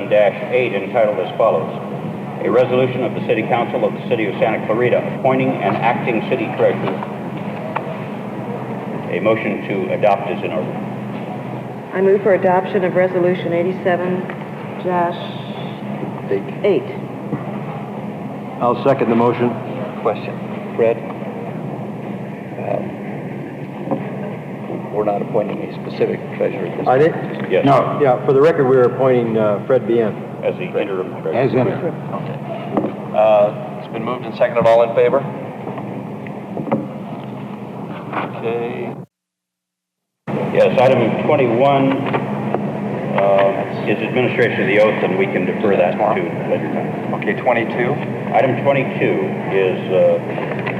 87-8 entitled as follows. A resolution of the City Council of the City of Santa Clarita appointing and acting city treasurer. A motion to adopt is in order. I move for adoption of Resolution 87 eight. I'll second the motion. Question. Fred? um, We're not appointing a specific treasurer at this I time. did? Yes. No, Yeah, for the record, we are appointing uh, Fred Bien. As the interim treasurer. as in, Uh, It's been moved and seconded. All in favor? Okay. Yes, item 21 uh, is administration of the oath, and we can defer that to later time. Okay, 22. Item 22 is uh,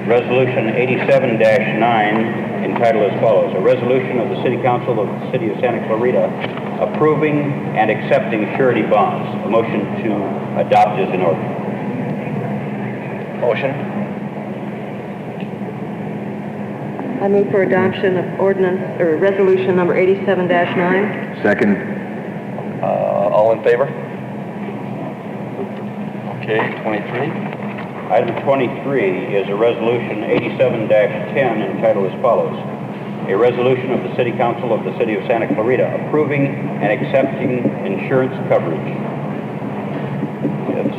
Resolution 87-9 entitled as follows, "A resolution of the City Council of the City of Santa Clarita approving and accepting surety bonds." A motion to adopt is in order. Motion? I move for adoption of ordinance, or Resolution Number 87 nine. second, Uh, All in favor? Okay, 23. Item 23 is a Resolution 87-10 entitled as follows, "A resolution of the City Council of the City of Santa Clarita approving and accepting insurance coverage." That's uh,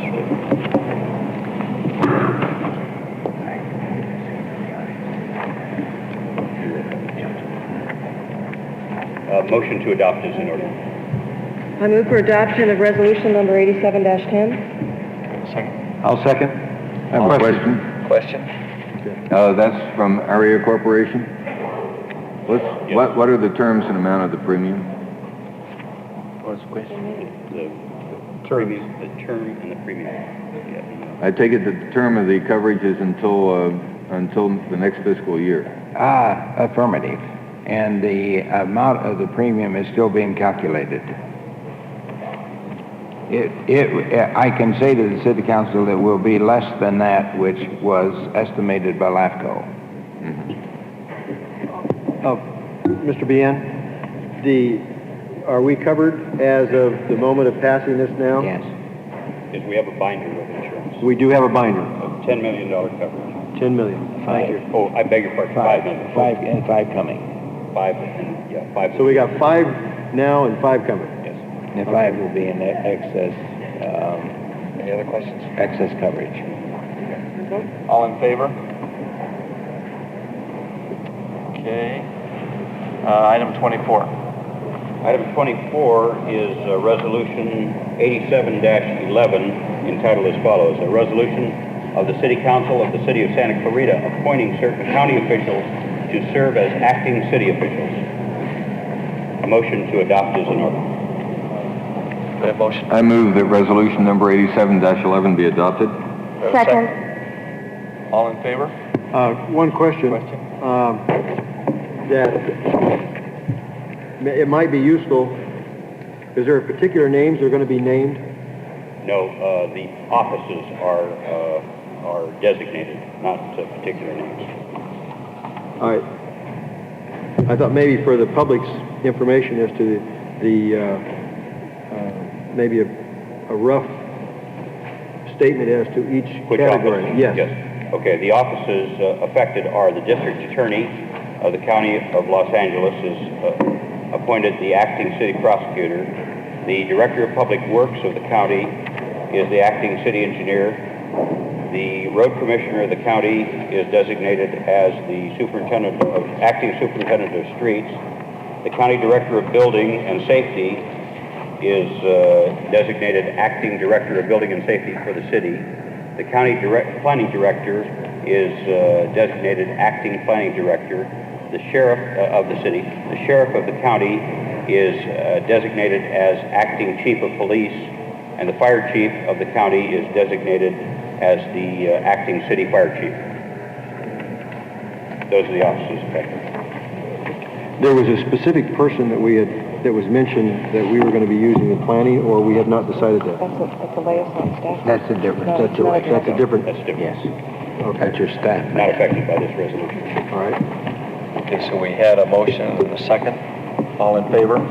Uh, motion to adopt is in order. I move for adoption of Resolution Number 87 10. Second. I'll second. I have a question. Question? Uh, that's from Aria Corporation? What's, Yes. what, what are the terms and amount of the premium? What's the question? The premium, the term and the premium. Yeah. I take it that the term of the coverage is until, uh, until the next fiscal year. Ah, affirmative. And the amount of the premium is still being calculated. It, it, I can say to the city council it will be less than that which was estimated by LAFCO. Uh, Mr. Bien, the, are we covered as of the moment of passing this now? Yes. Because we have a binder of insurance We do have a binder, of $10 million coverage. ten million. Thank you. Oh, I beg your pardon, five million. Five, and five coming. Five, and, yeah, five. So we got five now and five coming. Yes. And five will be in e- excess, um, Any other questions? excess coverage. All in favor? Okay. Uh, Item 24. Item 24 is uh, Resolution 87-11 entitled as follows, "A resolution of the City Council of the City of Santa Clarita appointing certain county officials to serve as acting city officials." A motion to adopt is in order. Do I have motion? I move that resolution number eighty-seven eleven be adopted. Do I have a Second. All in favor? Uh, one question. Question. Um, that, it might be useful, is there particular names that are gonna be named? No, uh, the offices are, uh, are designated, not uh, particular names. All right. I thought maybe for the public's information as to the, uh, uh, maybe a a rough statement as to each Which category. offices? Yes. Okay, the offices uh, affected are the district attorney of the county of Los Angeles is uh, appointed the acting city prosecutor. The director of public works of the county is the acting city engineer. The road commissioner of the county is designated as the superintendent of, acting superintendent of streets. The county director of building and safety is uh, designated acting director of building and safety for the city. The county direct, planning director is uh, designated acting planning director. The sheriff uh, of the city, the sheriff of the county is uh, designated as acting chief of police. And the fire chief of the county is designated as the uh, acting city fire chief. Those are the offices affected. There was a specific person that we had, that was mentioned that we were gonna be using in planning, or we have not decided that? That's a liaison staff. That's the difference. No, That's a, that's a different, That's different. Yes. That's your staff. Not affected by this resolution. all right? Okay, so we had a motion and a second. All in favor?